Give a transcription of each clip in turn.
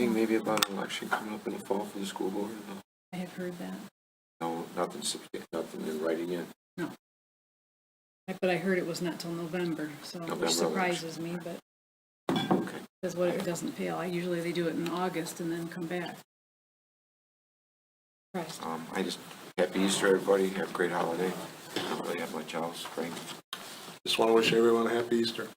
Think maybe about an election coming up in the fall for the school board? I have heard that, No, nothing, substan- nothing in writing yet. I- but I heard it was not till November, so, November which election. surprises me, but Okay. that's what it doesn't fail. I Usually they do it in August and then come back. Right. Um, I just, happy Easter, everybody. Have a great holiday. Don't really have much else. Frank, Just want to wish everyone a happy Easter.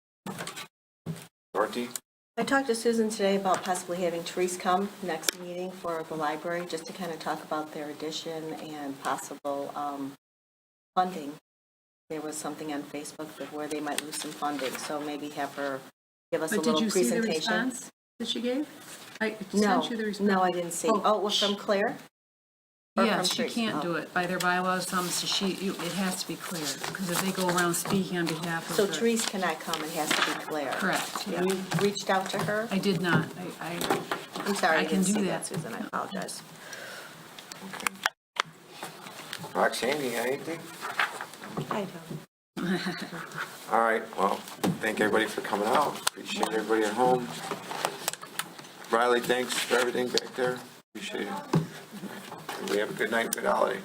Dorothy? I talked to Susan today about possibly having Therese come next meeting for the library, just to kind of talk about their addition and possible um, funding. There was something on Facebook that where they might lose some funding, so maybe have her give us a But did little you see the presentation. response that she gave? I No, sent you the response. no, I didn't see. Oh, Oh, it was from Claire? Or Yeah, from she Therese? can't Oh. do it by their bylaws, um, so she, you- it has to be clear, because if they go around speaking on behalf of So her. Therese cannot come, it has to be Claire. Correct, yeah. You reached out to her? I did not, I, I, I'm sorry, I I can didn't do see that. that, Susan, I apologize. Okay. Roxanne, you got anything? I don't. All right, well, thank everybody for coming out. Appreciate everybody at home. Riley, thanks for everything back there. Appreciate it. We have a good night, good holiday.